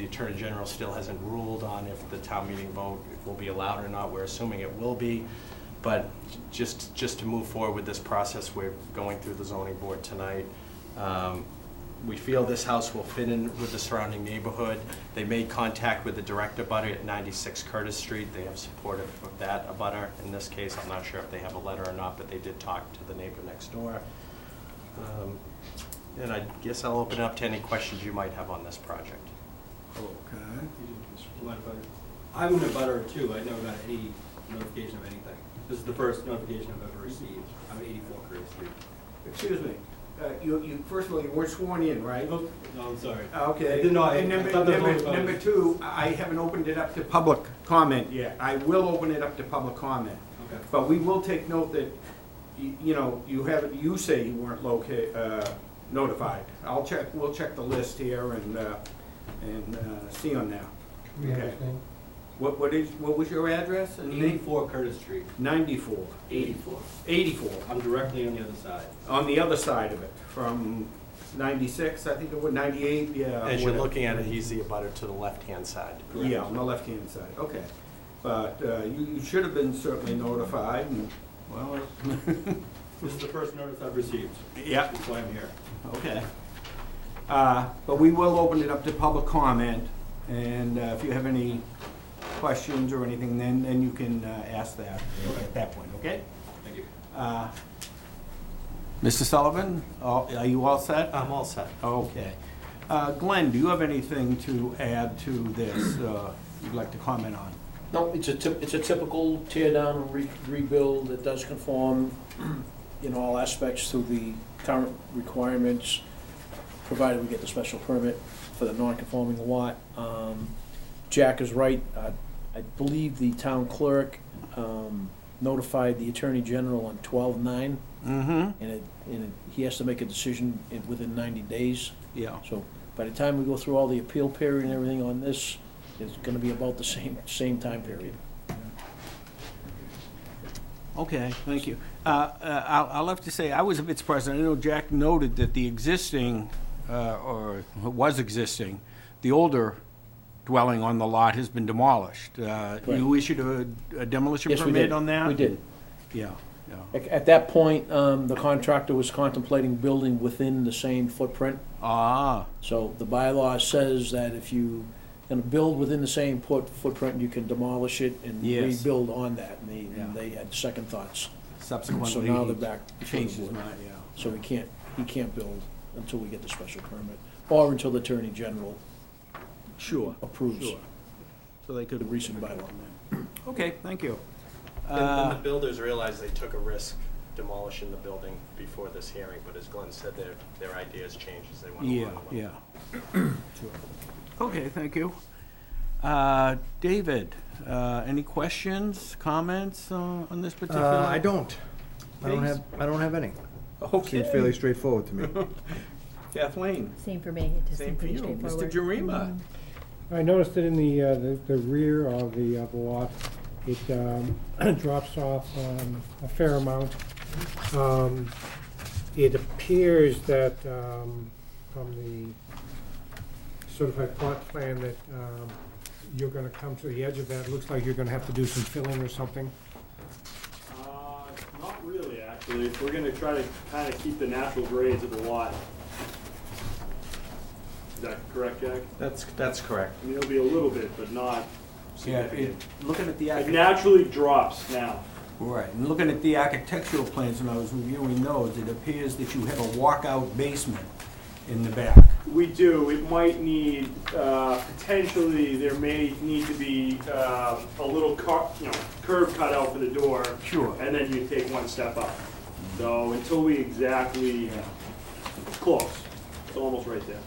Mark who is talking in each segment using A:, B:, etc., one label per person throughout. A: Attorney General still hasn't ruled on if the town meeting vote will be allowed or not. We're assuming it will be. But just, just to move forward with this process, we're going through the zoning board tonight. Um, We feel this house will fit in with the surrounding neighborhood. They made contact with the direct abutter at 96 Curtis Street. They have support of of that abutter in this case. I'm not sure if they have a letter or not, but they did talk to the neighbor next door. Um, And I guess I'll open it up to any questions you might have on this project.
B: Okay.
C: I'm in a butter too, I never got any notification of anything. This is the first notification I've ever received. I'm at eighty-four Curtis Street.
D: Excuse me, uh, you, you, first of all, you weren't sworn in, right? Ah,
C: Oh, No, I'm sorry.
D: Okay.
C: I did not-
D: And number,
C: I thought that was
D: number,
C: all about-
D: number two, I haven't opened it up to public comment yet. I will open it up to public comment.
C: Okay.
D: But we will take note that, y- you know, you have, you say you weren't loca, uh, notified. I'll check, we'll check the list here and, uh, and, uh, see on that.
E: We
D: Okay.
E: understand.
D: What, what is, what was your address and name?
C: Eighty-four Curtis Street.
D: Ninety-four.
C: Eighty-four.
D: Eighty-four,
C: I'm directly on the other side.
D: on the other side of it, from ninety-six, I think it was, ninety-eight,
A: As
D: yeah.
A: you're
D: whatever.
A: looking at it, he's the abutter to the left-hand side.
D: Uh, Yeah, on the left-hand side, okay. But uh, you, you should have been certainly notified, and, well,
C: This is the first notice I've received.
D: yeah,
C: That's why I'm here.
D: okay. Uh, But we will open it up to public comment, and uh, if you have any questions or anything, then, then you can uh, ask that at that point, okay?
C: Thank you.
D: Uh, Mr. Sullivan, all- are you all set?
A: I'm all set.
D: Okay. Uh, Glenn, do you have anything to add to this uh, you'd like to comment on?
E: No, it's a, typ- it's a typical tear down and re- rebuild that does conform in all aspects to the current requirements, provided we get the special permit for the non-conforming lot. Um, Jack is right, Uh, I believe the town clerk um, notified the Attorney General on twelve-nine,
D: Mm-hmm.
E: and it, and it- he has to make a decision in- within ninety days.
D: Yeah.
E: So by the time we go through all the appeal period and everything on this, it's gonna be about the same, same time period.
D: Okay, thank you. Uh, uh, I'll I'll have to say, I was a bit surprised, I know Jack noted that the existing, uh, or was existing, the older dwelling on the lot has been demolished. Uh, You issued a- a demolition
E: Yes, we did.
D: permit on that?
E: We did.
D: Yeah, yeah,
E: At, at that point, um, the contractor was contemplating building within the same footprint.
D: ah,
E: So the bylaw says that if you gonna build within the same put, footprint, you can demolish it and
D: Yes.
E: rebuild on that. And they,
D: Yeah.
E: and they had second thoughts. So
D: subsequently.
E: now they're back.
D: he
E: to the
D: Changed his
E: board.
D: mind, yeah.
E: So we can't, he can't build until we get the special permit, or until the Attorney General
D: Sure.
E: approves
D: Sure. So they could.
E: the recent bylaw.
D: Okay, thank you.
A: And
D: Uh,
A: the builders realized they took a risk demolishing the building before this hearing, but as Glenn said, their, their ideas changed as they went along.
D: Yeah, yeah. Okay, thank you. Uh, David, uh, any questions, comments uh, on this particular?
F: Uh, I don't. I don't have, I don't have any. Seems fairly
D: Okay,
F: straightforward to me.
D: Kathleen,
G: Same for me, it just
D: same
G: seemed
D: for
G: pretty
D: you. Mr.
G: straightforward.
D: Jarima,
G: Mm-hmm.
H: I noticed that in the, uh, the- the rear of the, of the lot, it um, drops off um, a fair amount. Um, It appears that um, from the certified plot plan that um, you're gonna come to the edge of that, looks like you're gonna have to do some filling or something.
I: Uh, Not really, actually. We're gonna try to kind of keep the natural grades of the lot. Is that correct, Jack?
A: That's, that's correct.
I: I mean, it'll be a little bit, but not
D: yeah, it-
I: significant.
D: looking at the,
I: It
D: archi-
I: naturally drops now.
D: right, and looking at the architectural plans when I was reviewing those, it appears that you have a walkout basement in the back.
I: We do, it might need, uh, potentially, there may need to be um, a little car, you know, curb cut out for the door.
D: Sure.
I: And then you take one step up. So until we exactly, close, it's almost right there.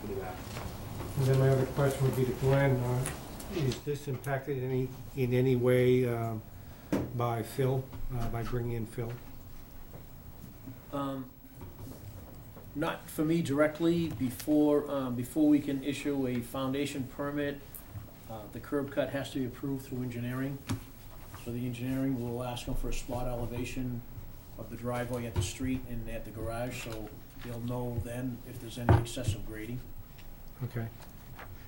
I: To the back.
H: And then my other question would be to Glenn, uh, is this impacted any, in any way um, by fill, uh, by bringing in fill?
E: Um, Not for me directly, before, um, before we can issue a foundation permit, uh, the curb cut has to be approved through engineering. So the engineering will ask them for a spot elevation of the driveway at the street and at the garage, so they'll know then if there's any excessive grading.
H: Okay.